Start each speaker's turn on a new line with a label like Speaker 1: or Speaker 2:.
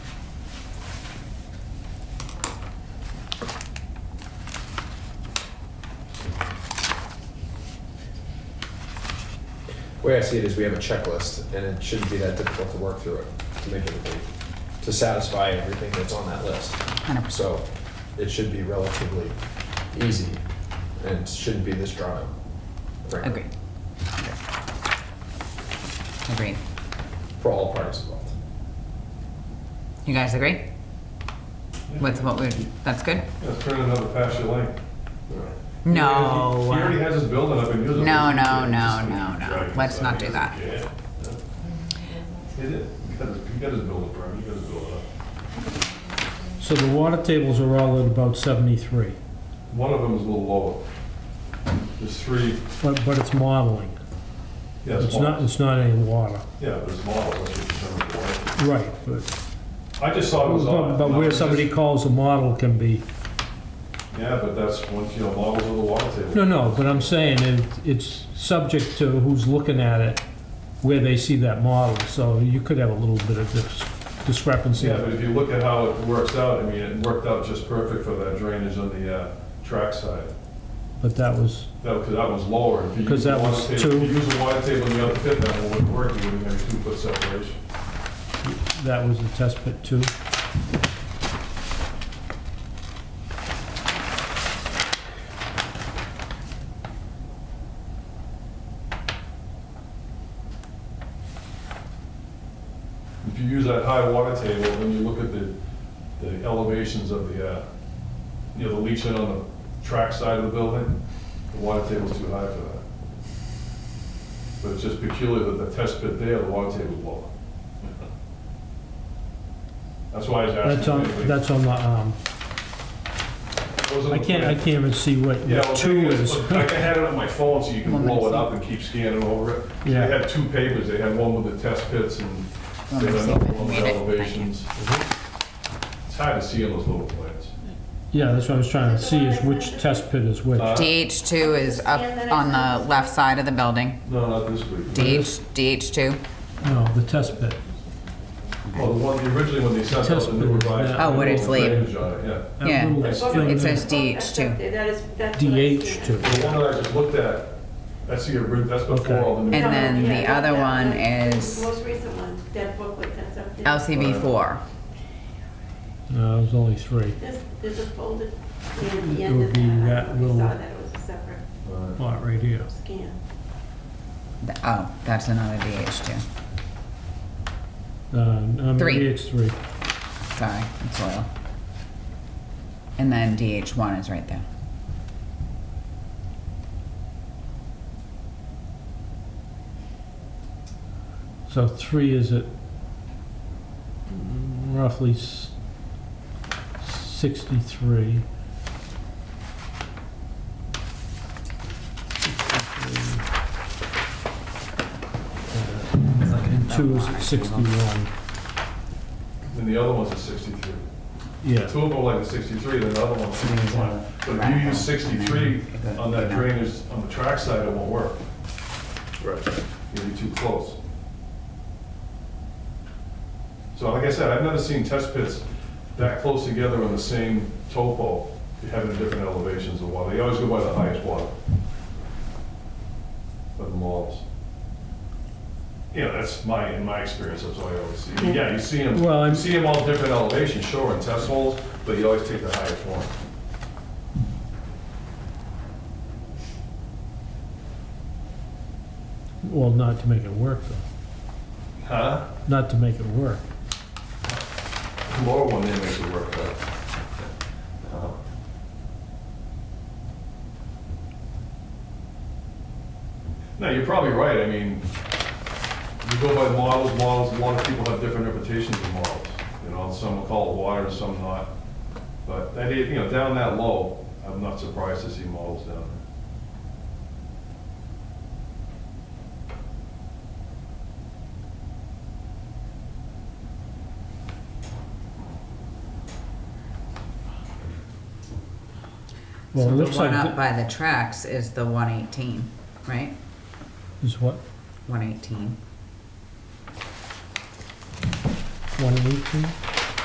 Speaker 1: way I see it is we have a checklist, and it shouldn't be that difficult to work through it, to make everything, to satisfy everything that's on that list.
Speaker 2: 100%.
Speaker 1: So it should be relatively easy, and shouldn't be this drawn out. frankly,
Speaker 2: Agreed. Agreed.
Speaker 1: For all parties involved.
Speaker 2: You guys agree with what we, that's good?
Speaker 3: Let's turn another pasture lane.
Speaker 2: No.
Speaker 3: He already has his building up and using it.
Speaker 2: No, no, no,
Speaker 3: Just-
Speaker 2: no, no.
Speaker 3: Right,
Speaker 2: Let's
Speaker 3: so
Speaker 2: not
Speaker 3: he
Speaker 2: do
Speaker 3: doesn't
Speaker 2: that.
Speaker 3: care. He did. He got his- he got his building permit, he got his building up.
Speaker 4: So the water tables are all at about 73,
Speaker 3: One of them is a little lower. There's three,
Speaker 4: but, but it's modeling.
Speaker 3: yeah, it's
Speaker 4: It's not,
Speaker 3: models.
Speaker 4: it's not any water.
Speaker 3: Yeah, but it's models, that's what determines the weight.
Speaker 4: Right, but,
Speaker 3: I just saw it was
Speaker 4: but
Speaker 3: on.
Speaker 4: but where
Speaker 3: It's just-
Speaker 4: somebody calls a model can be,
Speaker 3: Yeah, but that's, once you know, models of the water table.
Speaker 4: no, no, but I'm saying it, it's subject to who's looking at it, where they see that model, so you could have a little bit of dis- discrepancy.
Speaker 3: Yeah, but if you look at how it works out, I mean, it worked out just perfect for that drainage on the uh, track side.
Speaker 4: But that was,
Speaker 3: No, because that was lower. If you
Speaker 4: 'Cause that
Speaker 3: use a
Speaker 4: was
Speaker 3: water
Speaker 4: two.
Speaker 3: table- If you use a water table and you have a pit, that one wouldn't work, you wouldn't have two foot separation.
Speaker 4: that was the test pit too.
Speaker 3: If you use that high water table, then you look at the, the elevations of the, uh, you know, the leach in on the track side of the building, the water table's too high for that. But it's just peculiar that the test pit there, the water table's lower. That's why I was asking.
Speaker 4: That's on,
Speaker 3: anyway.
Speaker 4: that's on the, um,
Speaker 3: Those are
Speaker 4: I
Speaker 3: the
Speaker 4: can't, I
Speaker 3: plans.
Speaker 4: can't even see what
Speaker 3: Yeah, well,
Speaker 4: two
Speaker 3: the thing
Speaker 4: is.
Speaker 3: is, look, like I had it on my phone, so you can
Speaker 2: One
Speaker 3: roll it
Speaker 2: minute.
Speaker 3: up and keep scanning over it. They
Speaker 4: Yeah.
Speaker 3: had two papers, they had one with the test pits and
Speaker 2: One
Speaker 3: they
Speaker 2: minute,
Speaker 3: had
Speaker 2: see if I
Speaker 3: another
Speaker 2: can
Speaker 3: one with
Speaker 2: read it. Mm-hmm.
Speaker 3: elevations. It's hard to see on those little plans.
Speaker 4: Yeah, that's what I was trying to see, is which test pit is which.
Speaker 3: Uh,
Speaker 2: DH2 is up on the left side of the building.
Speaker 3: No, not this week.
Speaker 2: DH, DH2.
Speaker 4: No, the test pit.
Speaker 3: Well, Oh, the one, originally when they sent out
Speaker 4: Test
Speaker 3: the new
Speaker 4: pit,
Speaker 3: revised.
Speaker 4: yeah.
Speaker 2: Oh, what it's labeled.
Speaker 3: drainage on it, Yeah.
Speaker 4: That
Speaker 2: Yeah.
Speaker 4: little
Speaker 3: It
Speaker 4: thing
Speaker 2: It
Speaker 4: there,
Speaker 2: says DH2.
Speaker 5: That is, that's. what I see.
Speaker 4: DH too.
Speaker 3: The one that I just looked at, that's the, ori- that's
Speaker 4: Okay.
Speaker 3: before all the new.
Speaker 2: And then the
Speaker 5: Yeah,
Speaker 2: other
Speaker 5: that-
Speaker 2: one
Speaker 5: that-
Speaker 2: is-
Speaker 5: the Most recent one, that booklet that's up there.
Speaker 2: LCB4.
Speaker 4: No, it was only three.
Speaker 5: There's, there's a folder at the
Speaker 4: It
Speaker 5: end
Speaker 4: would
Speaker 5: of
Speaker 4: be
Speaker 5: that. I
Speaker 4: that
Speaker 5: don't know if
Speaker 4: little-
Speaker 5: you saw that, it was a separate
Speaker 3: Alright.
Speaker 4: Lot right here.
Speaker 5: scan.
Speaker 2: Th- Oh, that's another DH2.
Speaker 4: Uh, no,
Speaker 2: Three.
Speaker 4: Maybe it's three.
Speaker 2: Sorry, it's oil. And then DH1 is right there.
Speaker 4: So three is at mm, roughly s- 63. Uh, And two is at 61.
Speaker 3: And the other one's a sixty-three.
Speaker 4: Yeah.
Speaker 3: Two of them are like a sixty-three, then the other one's sixty-one. But if you use sixty-three on that drainage, on the track side, it won't work.
Speaker 1: Right.
Speaker 3: you'll be too close. So like I said, I've never seen test pits that close together on the same topo, having different elevations of water. They always go by the highest water. But the models. You know, that's my, in my experience, that's what I always see. Yeah, you see them,
Speaker 4: Well, I'm-
Speaker 3: you see them all different elevations, sure, in test holes, but you always take the highest one.
Speaker 4: Well, not to make it work, though.
Speaker 3: Huh?
Speaker 4: Not to make it work.
Speaker 3: The lower one there makes it work, but. uh, No, you're probably right, I mean, you go by models, models, a lot of people have different interpretations of models. You know, some will call it water, some not. But that, is- you know, down that low, I'm not surprised to see models down there.
Speaker 4: Well,
Speaker 2: So
Speaker 4: it
Speaker 2: the
Speaker 4: looks like,
Speaker 2: one up
Speaker 4: th-
Speaker 2: by the tracks is the 118, right?
Speaker 4: is what,
Speaker 2: 118.
Speaker 4: 118?